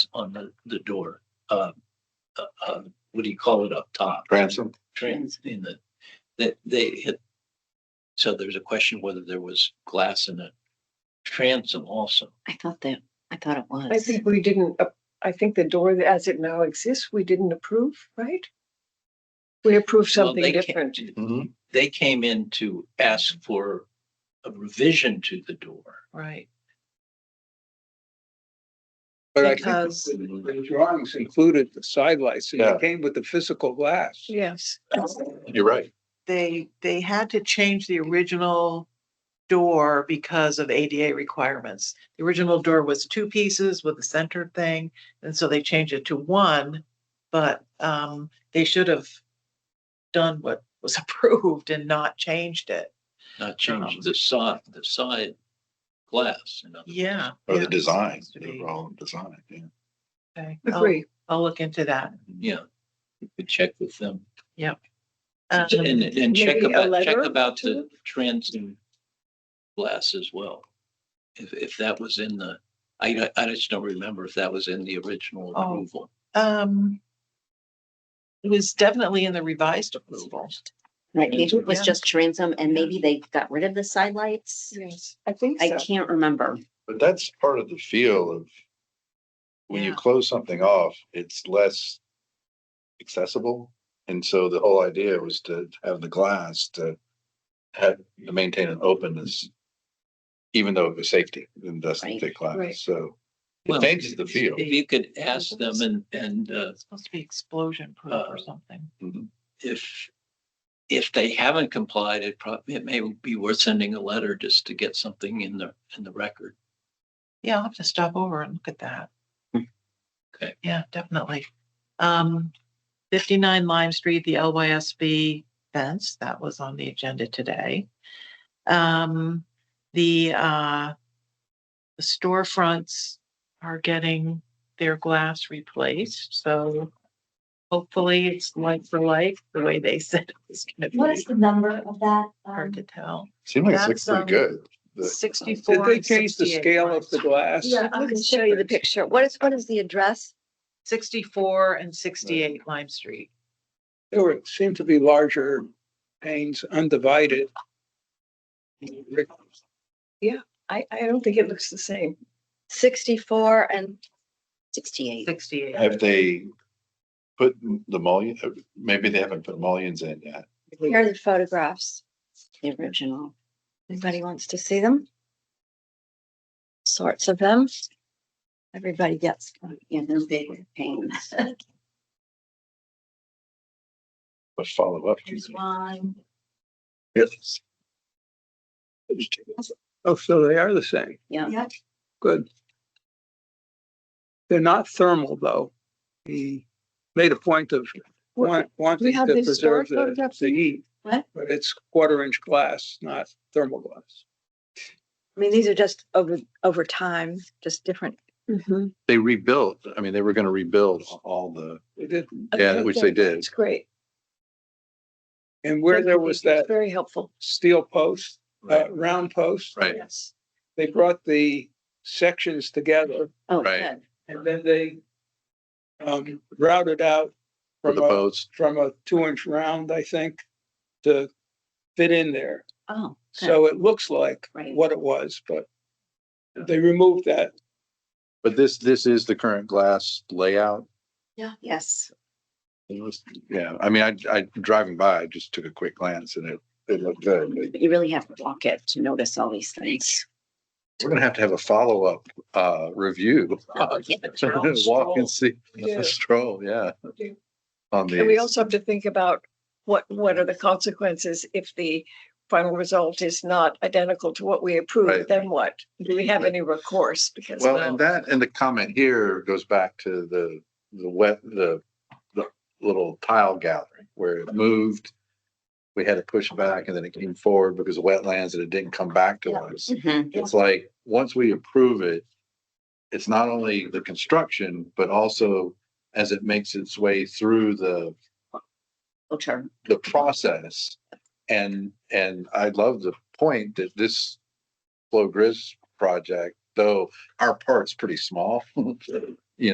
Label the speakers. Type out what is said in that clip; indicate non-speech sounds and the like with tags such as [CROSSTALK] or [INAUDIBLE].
Speaker 1: on the, the door, uh, uh, uh, what do you call it up top?
Speaker 2: Ransom?
Speaker 1: Trans in the, that they hit. So there's a question whether there was glass in the transom also.
Speaker 3: I thought that, I thought it was.
Speaker 4: I think we didn't, ap- I think the door that- as it now exists, we didn't approve, right? We approved
Speaker 1: Well,
Speaker 4: something
Speaker 1: they ca-
Speaker 4: different.
Speaker 2: Mhm.
Speaker 1: They came in to ask for a revision to the door.
Speaker 5: Right,
Speaker 6: But I think
Speaker 5: because,
Speaker 6: the the drawings included the side lights and
Speaker 2: Yeah.
Speaker 6: it came with the physical glass.
Speaker 4: Yes.
Speaker 2: You're right.
Speaker 5: they, they had to change the original door because of ADA requirements. The original door was two pieces with a centered thing, and so they changed it to one, but, um, they should have done what was [LAUGHS] approved and not changed it.
Speaker 1: Not change the side, the side glass. in other words.
Speaker 5: Yeah.
Speaker 2: Or
Speaker 5: yeah,
Speaker 2: the
Speaker 5: it
Speaker 2: design,
Speaker 5: has to
Speaker 2: the
Speaker 5: be.
Speaker 2: wrong design, yeah.
Speaker 5: Okay, I'll,
Speaker 4: Agree.
Speaker 5: I'll look into that.
Speaker 1: Yeah, you could check with them
Speaker 5: Um,
Speaker 1: and, and check
Speaker 4: maybe a
Speaker 1: about, check
Speaker 4: letter
Speaker 1: about
Speaker 4: to
Speaker 1: the transom glass as well. If, if that was in the, I, don't- I just don't remember if that was in the original
Speaker 5: Oh.
Speaker 1: approval.
Speaker 5: um, it was definitely in the revised approval.
Speaker 3: Right, maybe it was
Speaker 5: Yeah.
Speaker 3: just transom and maybe they got rid of the side lights.
Speaker 4: Yes, I think
Speaker 3: I
Speaker 4: so.
Speaker 3: can't remember.
Speaker 2: But that's part of the feel of when you
Speaker 5: Yeah.
Speaker 2: close something off, it's less accessible. And so the whole idea was to have the glass to have, to maintain an openness, even though it was safety and doesn't
Speaker 3: Right.
Speaker 2: thick
Speaker 4: Right.
Speaker 2: glass. So
Speaker 1: Well,
Speaker 2: it changes the feel.
Speaker 1: If you could ask them and, and, uh,
Speaker 5: It's supposed to be explosion proof
Speaker 1: uh,
Speaker 5: or something.
Speaker 1: if, if they haven't complied, it probably, it may be worth sending a letter just to get something in the, in the record.
Speaker 5: Yeah, I'll have to stop over and look at that.
Speaker 3: Hmm.
Speaker 1: Okay.
Speaker 5: Yeah, definitely. Um, fifty-nine Lime Street, the LYSB fence, that was on the agenda today. Um, the, uh, the storefronts are getting their glass replaced, so hopefully it's like for like, the way they [LAUGHS] said it was gonna be.
Speaker 3: the um, number of that?
Speaker 5: Hard to tell.
Speaker 2: Seemed like it looks
Speaker 5: That's,
Speaker 2: pretty
Speaker 5: um,
Speaker 2: good. The-
Speaker 5: Sixty-four.
Speaker 6: Did they
Speaker 5: and
Speaker 6: change the
Speaker 5: 68
Speaker 6: scale of the
Speaker 5: lines.
Speaker 6: glass?
Speaker 4: Yeah, I can show you the picture. What is, what is the address?
Speaker 5: Sixty-four and sixty-eight Lime Street.
Speaker 6: There were, seemed to be larger panes undivided.
Speaker 4: I, I don't think it looks the same.
Speaker 7: sixty-four and
Speaker 3: Sixty-eight.
Speaker 5: Sixty-eight.
Speaker 2: Have they put the mullion, uh, maybe they haven't put mullions in yet.
Speaker 7: here are the photographs.
Speaker 3: The original.
Speaker 7: Anybody wants to see them? Sorts of them. Everybody gets one.
Speaker 3: Yeah, they're big with pains.
Speaker 2: But follow up.
Speaker 3: Here's one.
Speaker 2: Yes.
Speaker 6: Oh, so they are the same.
Speaker 3: Yeah.
Speaker 6: Good. They're not thermal, though. He made a point of want, wanting
Speaker 4: have
Speaker 6: to
Speaker 4: the historic
Speaker 6: preserve the,
Speaker 4: photographs?
Speaker 6: the heat.
Speaker 3: What?
Speaker 6: But it's quarter inch glass, not thermal glass.
Speaker 7: I mean, these are just over, over time, just different.
Speaker 2: They rebuilt, I mean, they were gonna rebuild all the,
Speaker 6: They did.
Speaker 2: yeah, which they did.
Speaker 4: It's great.
Speaker 6: And where there was that
Speaker 4: Very helpful.
Speaker 6: steel post, uh,
Speaker 1: Right.
Speaker 6: round post,
Speaker 2: Right,
Speaker 5: Yes.
Speaker 6: they brought the sections together
Speaker 3: Oh,
Speaker 2: Right.
Speaker 3: good.
Speaker 6: and then they um, routed out
Speaker 2: for
Speaker 6: from
Speaker 2: the
Speaker 6: a,
Speaker 2: boats.
Speaker 6: from a two inch round, I think, to fit in there.
Speaker 3: Oh. good.
Speaker 6: So it looks like
Speaker 3: Right.
Speaker 6: what it was, but they removed that.
Speaker 2: But this, this is the current glass layout.
Speaker 3: Yeah, yes.
Speaker 2: It was- Yeah, I mean, I, I driving by, I just took a quick glance and it, it looked good. but
Speaker 3: But you really have to walk it to notice all these things.
Speaker 2: We're gonna have to have a follow-up, uh, review. [LAUGHS]
Speaker 3: Yeah,
Speaker 2: Walk and see,
Speaker 4: Yeah.
Speaker 2: a [LAUGHS] stroll, yeah.
Speaker 4: Okay.
Speaker 2: On
Speaker 4: And we
Speaker 2: the,
Speaker 4: also have to think about what, what are the consequences if the final result is not identical to what we
Speaker 2: Right.
Speaker 4: approved, then what? Do we have any recourse? Because
Speaker 2: well, and that, and the comment here goes back to the, the wet, the, the little tile gathering where it moved. We had to push back and then it came forward because of wetlands and it didn't come back to us.
Speaker 3: Mhm.
Speaker 2: It's like, once we approve it, it's not only the construction, but also as it makes its way through the,
Speaker 3: Oh, sure.
Speaker 2: the process. And, and I love the point that this Flow Grizz project, though our part's pretty small, [LAUGHS]